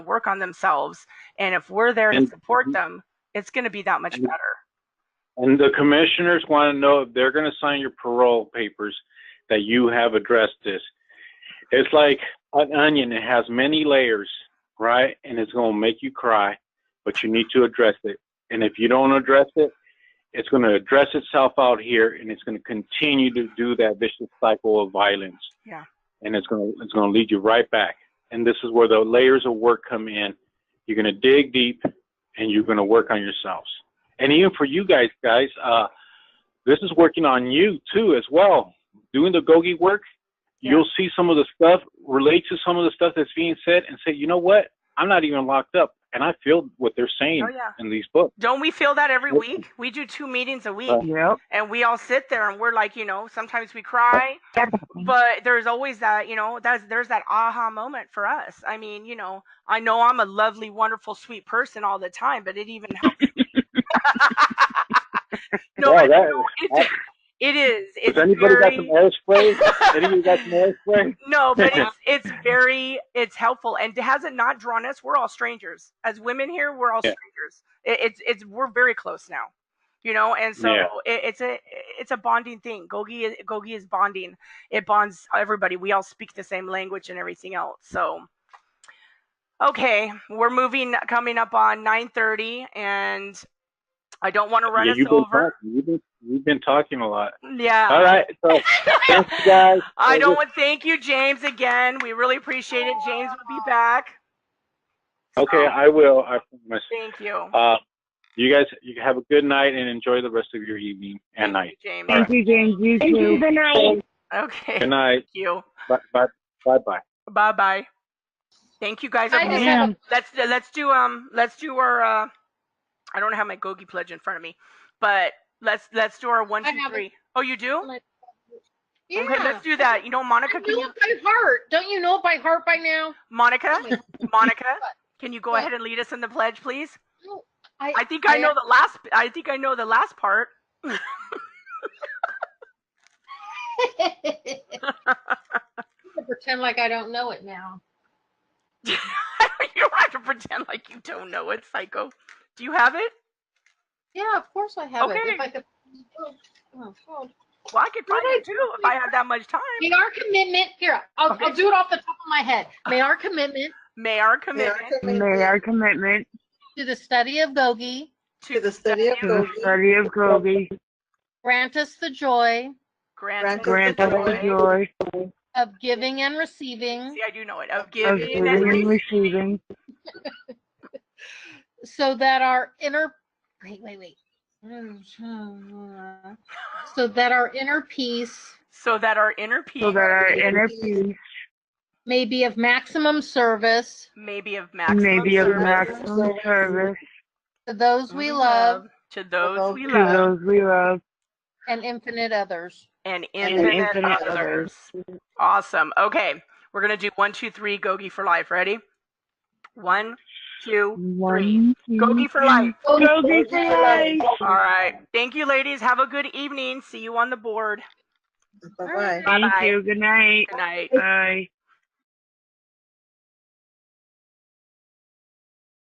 work on themselves. And if we're there to And- Mhm. support them, it's going to be that much And- better. And the commissioners want to know if they're going to sign your parole papers that you have addressed this. It's like an onion, it has many layers, right? And it's going to make you cry, but you need to address it. And if you don't address it, it's going to address itself out here and it's going to continue to do that vicious cycle of violence. Yeah. And it's going to, it's going to lead you right back. And this is where the layers of work come in. You're going to dig deep and you're going to work on yourselves and even for you guys, guys, uh, this is working on you too as well. Doing the gogi work, Yeah. you'll see some of the stuff, relate to some of the stuff that's being said, and say, you know what? I'm not even locked up, and I feel what they're saying Oh, yeah. in these books. Don't we feel that every Yep. week? We do two meetings a week Right. Yep. and we all sit there and we're like, you know, sometimes we cry, Mm-hmm. but there's always that, you know, that's, there's that aha moment for us. I mean, you know, I know I'm a lovely, wonderful, sweet person all the time, but it even helps. no, Wow, it- that- it, it is. It's has anybody very, got some air spray? anybody got some air spray? No, but it's it's very it's helpful and has it not drawn us? We're all strangers as women here. We're all Yeah. strangers. It, it's it's we're very close now, you know. And so Yeah. it, it's a it's a bonding thing. Gogi is, Gogi is bonding. It bonds everybody. We all speak the same language and everything else. So okay, we're moving coming up on nine thirty, and I don't want to run yeah, us you've been over. talking. You've been, you've been talking a lot. Yeah. All right, so thanks, guys. I don't want thank you, James, again. We really appreciate it. James will be back. Okay, I will. I promise. Thank you. Uh, you guys, you have a good night and enjoy the rest of your evening and night. Thank you, James. Thank you, James. You too. Good night. Okay. Good Thank night. you. Bye bye. Bye bye. Bye bye. Thank you guys. I just have a- Let's let's do um let's do our uh I don't have my Gogi pledge in front of me, but let's let's do our one I two have it. three. Oh, you do? Yeah. Okay, let's do that. You know, I Monica, can know you, it by heart. Don't you know it by heart by now? Monica, Monica, can you go What? ahead and lead us in the pledge, please? No, I think I I- know the last. I think I know the last part. I pretend like I don't know it now. you don't have to pretend like you don't know it, psycho. Do you have it? Yeah, of course I have it. Okay. If I could... oh, God. Well, I could find What it too if I had that much time. May our commitment here. I'll, Okay. I'll do it off the top of my head. May our commitment May our commitment May our commitment to the study of Gogi to the study of to the study of Kobe grant us the joy grant, grant us the joy of giving and receiving, See, I do know it. Of of giving giving and and receiving. receiving so that our inner wait wait wait so that our inner peace so that our inner peace so that our inner peace may be of maximum service may be of maximum may be of service maximum service to those we love to those we to love those we love. and infinite others. and and infinite, infinite others. Awesome. Okay, we're gonna do one, two, three. Gogi for life. Ready? One, two. One, two, Gogi for life. Kobe for life. All right. Thank you, ladies. Have a good evening. See you on the board. Bye bye. Bye-bye. Thank you. Good night. Good night. Bye.